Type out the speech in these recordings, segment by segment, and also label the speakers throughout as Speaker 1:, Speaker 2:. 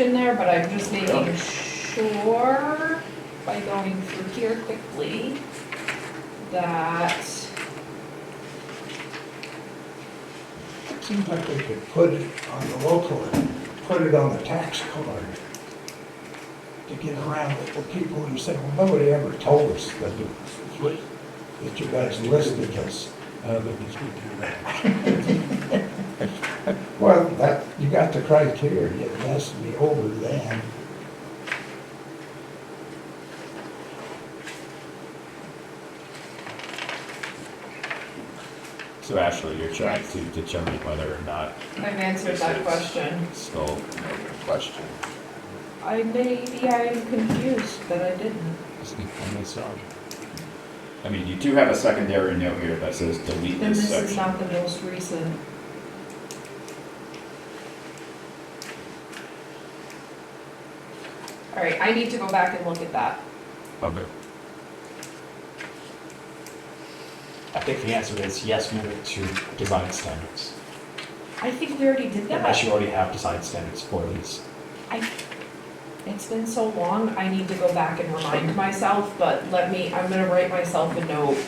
Speaker 1: in there, but I'm just making sure by going through here quickly that,
Speaker 2: Seems like they could put it on the local, and put it on the tax card to get around it, the people who say, well, nobody ever told us that, you- that you guys listed this. Well, that, you got the criteria, it has to be over then.
Speaker 3: So Ashley, you're trying to determine whether or not
Speaker 1: I've answered that question.
Speaker 3: it's still an open question.
Speaker 1: I maybe I'm confused that I didn't.
Speaker 3: I mean, you do have a secondary note here that says delete
Speaker 1: Then
Speaker 3: this
Speaker 1: this is
Speaker 3: section.
Speaker 1: not the most recent. All right, I need to go back and look at that.
Speaker 3: Okay.
Speaker 4: I think the answer is yes, move it to design standards.
Speaker 1: I think we already did that.
Speaker 4: Unless you already have design standards for these.
Speaker 1: I, it's been so long, I need to go back and remind myself, but let me, I'm gonna write myself a note.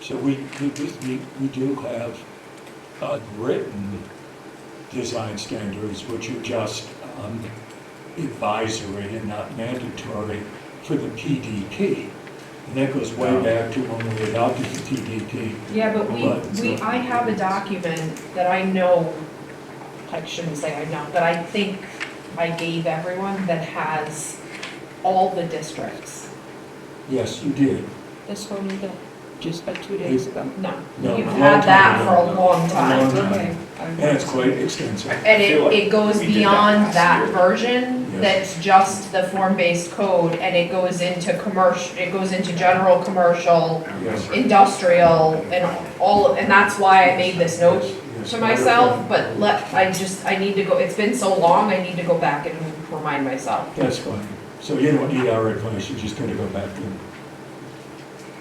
Speaker 5: So we, we, do- we, we do have uh, written design standards, which are just um, advisory and not mandatory for the PDP. And that goes way back to when we adopted the PDP.
Speaker 1: Yeah, but we,
Speaker 5: But it's
Speaker 1: we,
Speaker 5: not-
Speaker 1: I have a document that I know, I shouldn't say I know, that I think I gave everyone that has all the districts.
Speaker 5: Yes, you did.
Speaker 1: This one, the.
Speaker 6: just about two days ago.
Speaker 1: No,
Speaker 5: No,
Speaker 1: you've
Speaker 5: a long
Speaker 1: had that
Speaker 5: time
Speaker 1: for a
Speaker 5: ago.
Speaker 1: long
Speaker 5: A
Speaker 1: time.
Speaker 5: long time. And it's quite extensive.
Speaker 1: And
Speaker 3: feel
Speaker 1: it,
Speaker 3: like
Speaker 1: it goes
Speaker 3: we did that
Speaker 1: beyond
Speaker 3: last
Speaker 1: that
Speaker 3: year.
Speaker 1: version,
Speaker 5: Yes.
Speaker 1: that's just the form-based code, and it goes into commercial, it goes into general, commercial,
Speaker 5: Yes.
Speaker 1: industrial, and all, and that's why I made this note
Speaker 5: Yes.
Speaker 1: to myself, but let, I just, I need to go, it's been so long, I need to go back and remind myself.
Speaker 5: That's fine. So you don't need our advice, you're just gonna go back to,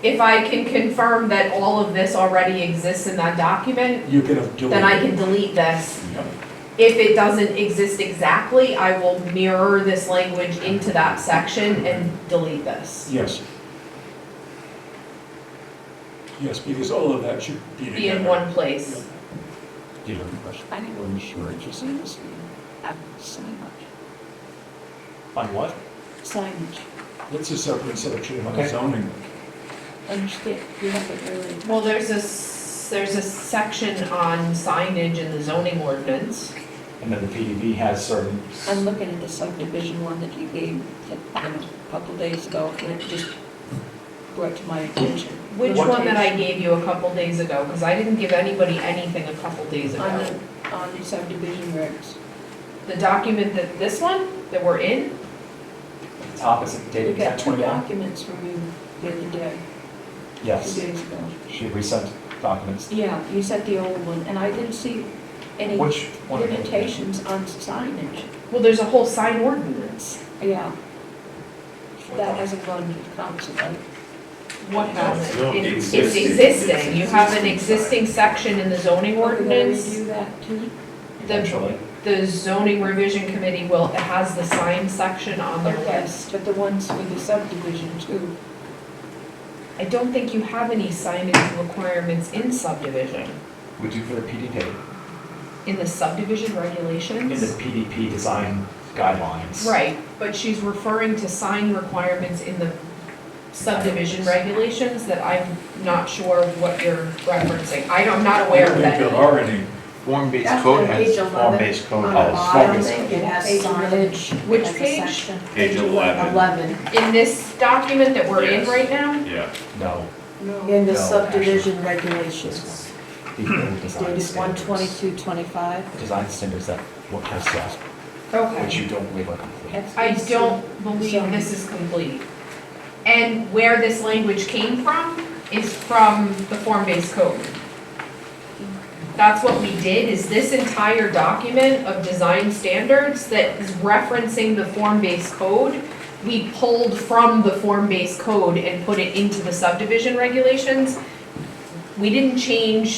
Speaker 1: If I can confirm that all of this already exists in that document,
Speaker 5: you can have deleted.
Speaker 1: then I can delete this.
Speaker 5: Yep.
Speaker 1: If it doesn't exist exactly, I will mirror this language into that section and delete this.
Speaker 5: Yes. Yes, because all of that should be
Speaker 1: Be in
Speaker 5: together.
Speaker 1: one place.
Speaker 3: Do you have a question?
Speaker 6: I didn't really sure what you signage. Signage.
Speaker 4: On what?
Speaker 6: Signage.
Speaker 5: It's a separate section of
Speaker 4: Okay.
Speaker 5: zoning.
Speaker 6: Understand, you have it earlier.
Speaker 1: Well, there's this, there's a section on signage in the zoning ordinance.
Speaker 4: And then the PDB has certain,
Speaker 6: I'm looking at the subdivision one that you gave, that, you know, a couple days ago, and it just brought to my attention.
Speaker 1: Which
Speaker 6: What
Speaker 1: one that I
Speaker 6: page?
Speaker 1: gave you a couple days ago, because I didn't give anybody anything a couple days ago.
Speaker 6: On the, on the subdivision regs.
Speaker 1: The document that, this one, that we're in,
Speaker 4: the top is
Speaker 6: We
Speaker 4: dated
Speaker 6: got
Speaker 4: at
Speaker 6: two
Speaker 4: twenty-nine?
Speaker 6: documents from you the other day,
Speaker 4: Yes,
Speaker 6: two days ago.
Speaker 4: she resent documents.
Speaker 6: Yeah, you sent the old one, and I didn't see any
Speaker 4: Which one?
Speaker 6: limitations on signage.
Speaker 1: well, there's a whole sign ordinance.
Speaker 6: Yeah, that hasn't gone to council, right?
Speaker 1: What has
Speaker 3: No,
Speaker 1: it? It's it's
Speaker 3: existing.
Speaker 1: existing, you have an
Speaker 3: Existing
Speaker 1: existing section in the zoning ordinance.
Speaker 6: Do that too?
Speaker 4: Eventually.
Speaker 1: The zoning revision committee will, it has the sign section on their list.
Speaker 6: But the ones with the subdivision too.
Speaker 1: I don't think you have any signage requirements in subdivision,
Speaker 4: We do for the PDP,
Speaker 1: in the subdivision
Speaker 4: in the
Speaker 1: regulations.
Speaker 4: PDP design guidelines.
Speaker 1: Right, but she's referring to sign requirements in the subdivision regulations that I'm not sure what you're referencing. I don't, I'm not aware of
Speaker 5: I don't think
Speaker 1: that.
Speaker 5: there are any.
Speaker 7: Form-based code has form-based code
Speaker 3: the
Speaker 7: policy.
Speaker 3: bottom,
Speaker 8: I think it has
Speaker 6: Page eleven.
Speaker 8: signage.
Speaker 1: Which
Speaker 8: as a
Speaker 1: page?
Speaker 8: section.
Speaker 3: Page 11.
Speaker 8: Eleven,
Speaker 1: In this document that we're in
Speaker 3: Yes.
Speaker 1: right now,
Speaker 3: Yeah.
Speaker 4: No,
Speaker 6: No.
Speaker 8: in the
Speaker 4: No, actually,
Speaker 8: subdivision regulations,
Speaker 4: the old design
Speaker 8: dated one
Speaker 4: standards.
Speaker 8: twenty-two twenty-five.
Speaker 4: Design standards that what has that, which
Speaker 1: okay,
Speaker 4: you don't believe are complete.
Speaker 1: I don't believe this is complete. And where this language came from is from the form-based code. That's what we did, is this entire document of design standards that is referencing the form-based code, we pulled from the form-based code and put it into the subdivision regulations. we didn't change